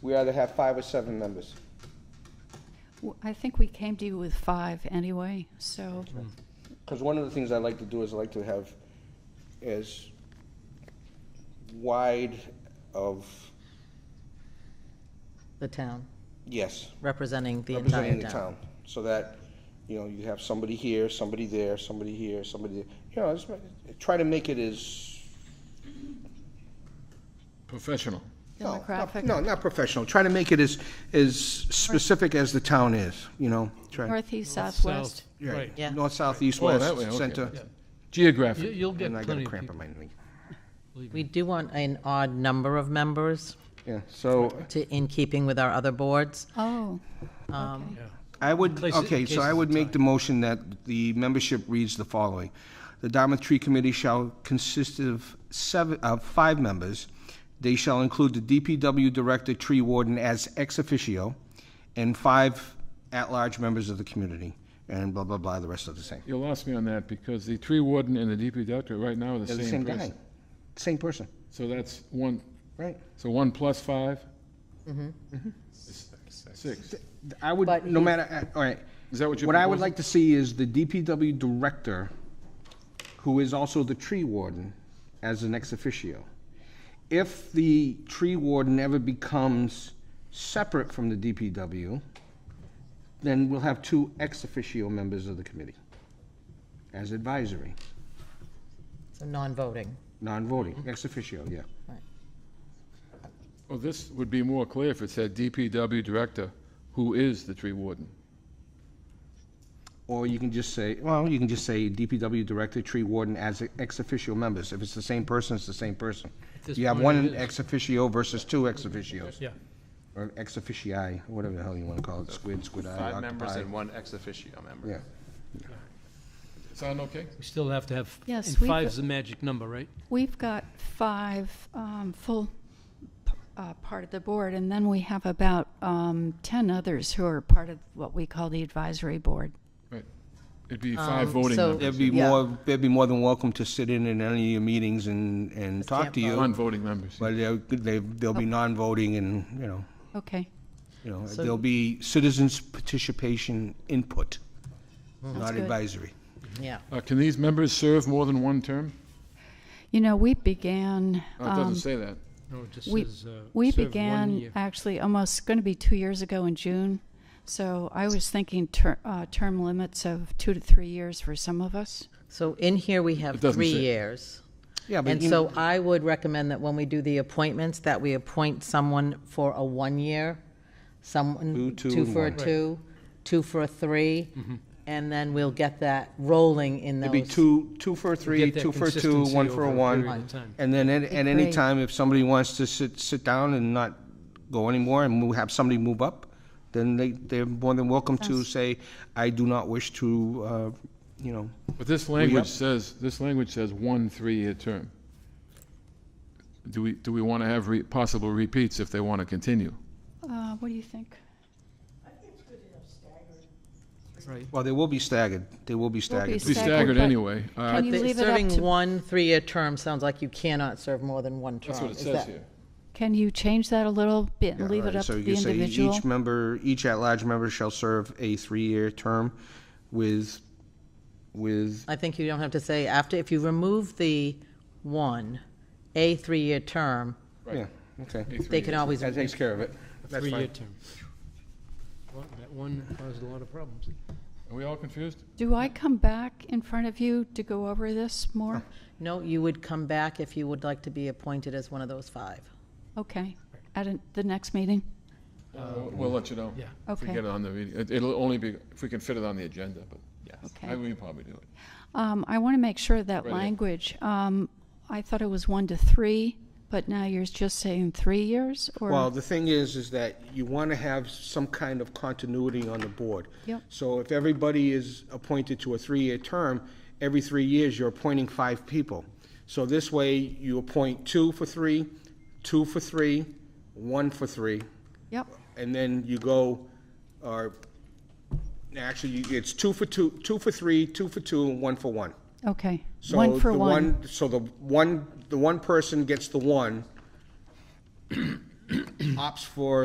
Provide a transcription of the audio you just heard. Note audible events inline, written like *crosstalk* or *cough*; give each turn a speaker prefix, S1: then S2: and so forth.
S1: we either have five or seven members.
S2: W- I think we came to you with five anyway, so,
S1: Because one of the things I like to do is I like to have as wide of,
S3: the town,
S1: yes,
S3: representing the entire
S1: representing the
S3: town.
S1: town. So that, you know, you have somebody here, somebody there, somebody here, somebody, there. you know, just ma- try to make it as.
S4: Professional.
S1: no, not-
S2: Demographic.
S1: No, not professional. Try to make it as, as specific as the town is, you know, try.
S2: northeast, southwest.
S1: yeah,
S5: Right.
S3: Yeah.
S1: North, south, east,
S4: Oh, that way,
S1: west,
S4: okay.
S1: center.
S4: Yeah.
S5: You-
S4: Geographic.
S5: You'll get
S1: And I got
S5: plenty
S1: a
S5: of
S1: cramp in
S5: people.
S1: my knee.
S3: We do want an odd number of members
S1: Yeah, so
S3: to, in keeping with our other boards.
S2: Oh,
S3: Um,
S1: I would,
S5: Places-
S1: okay, so
S5: cases
S1: I
S5: of
S1: would make the motion that the membership reads the following. The Dartmouth Tree Committee shall consist of seven, of five members. They shall include the DPW Director, Tree Warden as ex officio, and five at-large members of the community, and blah, blah, blah, the rest of the same.
S4: You lost me on that because the tree warden and the DP doctor right now are the
S1: They're the
S4: same
S1: same guy,
S4: person.
S1: same person,
S4: So that's one,
S1: right?
S4: so one plus five? Mm-hmm. Six.
S1: I would,
S3: But
S1: no
S3: he-
S1: matter, uh, all right.
S4: Is that what you're
S1: What I would
S4: proposing?
S1: like to see is the DPW director, who is also the tree warden, as an ex officio. If the tree warden ever becomes separate from the DPW, then we'll have two ex officio members of the committee as advisory,
S3: so non-voting.
S1: non-voting, ex officio, yeah.
S4: Well, this would be more clear if it said DPW director, who is the tree warden.
S1: Or you can just say, well, you can just say DPW director, tree warden as ex officio members. If it's the same person, it's the same person.
S5: this
S1: You have
S5: point, it
S1: one
S5: is.
S1: ex officio versus two ex officios.
S5: Yeah.
S1: Or ex officii, whatever the hell you want to call it, squid, squid eye,
S6: Five members
S1: octopi.
S6: and one ex officio member.
S1: Yeah,
S4: Sound okay?
S5: We still have to have, and
S2: Yes, we've-
S5: five's the magic number, right?
S2: we've got five um, full p- uh, part of the board, and then we have about um, 10 others who are part of what we call the advisory board.
S4: Right. It'd be five
S3: Um,
S4: voting
S3: so-
S4: members,
S1: they'd be
S3: Yeah.
S1: more, they'd be more than welcome to sit in in any of your meetings and, and talk
S3: can't
S1: to you.
S4: non-voting members.
S1: But they'll, they- they'll be non-voting and, you know,
S2: Okay,
S1: you know, there'll be citizens participation input, not
S2: good.
S1: advisory.
S3: Yeah.
S4: Uh, Can these members serve more than one term?
S2: you know, we began,
S4: Oh, It doesn't
S2: um,
S4: say that.
S5: No, it just
S2: we,
S5: says, uh,
S2: we
S5: serve one year.
S2: began actually almost, going to be two years ago in June, so I was thinking ter- uh, term limits of two to three years for some of us.
S3: So in here, we have
S4: It doesn't
S3: three
S4: say.
S3: years.
S1: Yeah, but
S3: And
S1: you-
S3: so I would recommend that when we do the appointments, that we appoint someone for a one-year,
S1: Two,
S3: someone,
S1: two,
S3: two
S1: and
S3: for a
S1: one.
S3: two, two for a three,
S4: Mm-hmm.
S3: and then we'll get that rolling in those.
S1: It'd be two, two for a three,
S5: that
S1: two for a two,
S5: consistency
S1: one for a
S5: over a period
S1: one.
S5: of time.
S1: And then at, at any
S2: Great.
S1: time, if somebody wants to sit, sit down and not go anymore and we have somebody move up, then they, they're more than welcome to say, I do not wish to, uh, you know,
S4: But this language says, this language says one three-year term. Do we, do we want to have re- possible repeats if they want to continue?
S2: Uh, What do you think?
S5: Right.
S1: well, they will be staggered. They will be staggered.
S4: To be
S2: Staggered,
S4: staggered
S2: but-
S4: anyway. Uh,
S2: Can
S3: But
S2: you
S3: the-
S2: leave it up
S3: serving
S2: to-
S3: one three-year term sounds like you cannot serve more than one term.
S4: That's what it
S3: Is
S4: says
S3: that-
S4: here.
S2: Can you change that a little bit
S1: Yeah,
S2: and leave
S1: all right,
S2: it up
S1: so
S2: to
S1: you
S2: the
S1: say
S2: individual?
S1: Each member, each at-large member shall serve a three-year term with, with,
S3: I think you don't have to say after, if you remove the one, a three-year term,
S1: yeah, okay.
S4: A
S3: they
S4: three-year.
S3: can always,
S1: That takes care of it. That's
S5: Three-year
S1: fine.
S5: term. Well, That one caused a lot of problems.
S4: Are we all confused?
S2: Do I come back in front of you to go over this more?
S3: no, you would come back if you would like to be appointed as one of those five.
S2: Okay, at an- the next meeting?
S4: We'll we'll let you know.
S5: yeah.
S4: If we
S2: Okay.
S4: get it on the, meeting. It- it'll only be, if we can fit it on the agenda, but yes,
S2: Okay.
S4: I- we can probably do it.
S2: Um, I want to make sure that
S4: Right.
S2: language, um, I thought it was one to three, but now you're just saying three years
S1: Well,
S2: or?
S1: the thing is, is that you want to have some kind of continuity on the board.
S2: Yep.
S1: So if everybody is appointed to a three-year term, every three years, you're appointing five people. So this way, you appoint two for three, two for three, one for three,
S2: Yep,
S1: and then you go, or, actually, you- it's two for two, two for three, two for two, and one for one.
S2: okay.
S1: So
S2: One for
S1: the
S2: one.
S1: So the one, the one person gets the one, *coughs* opts for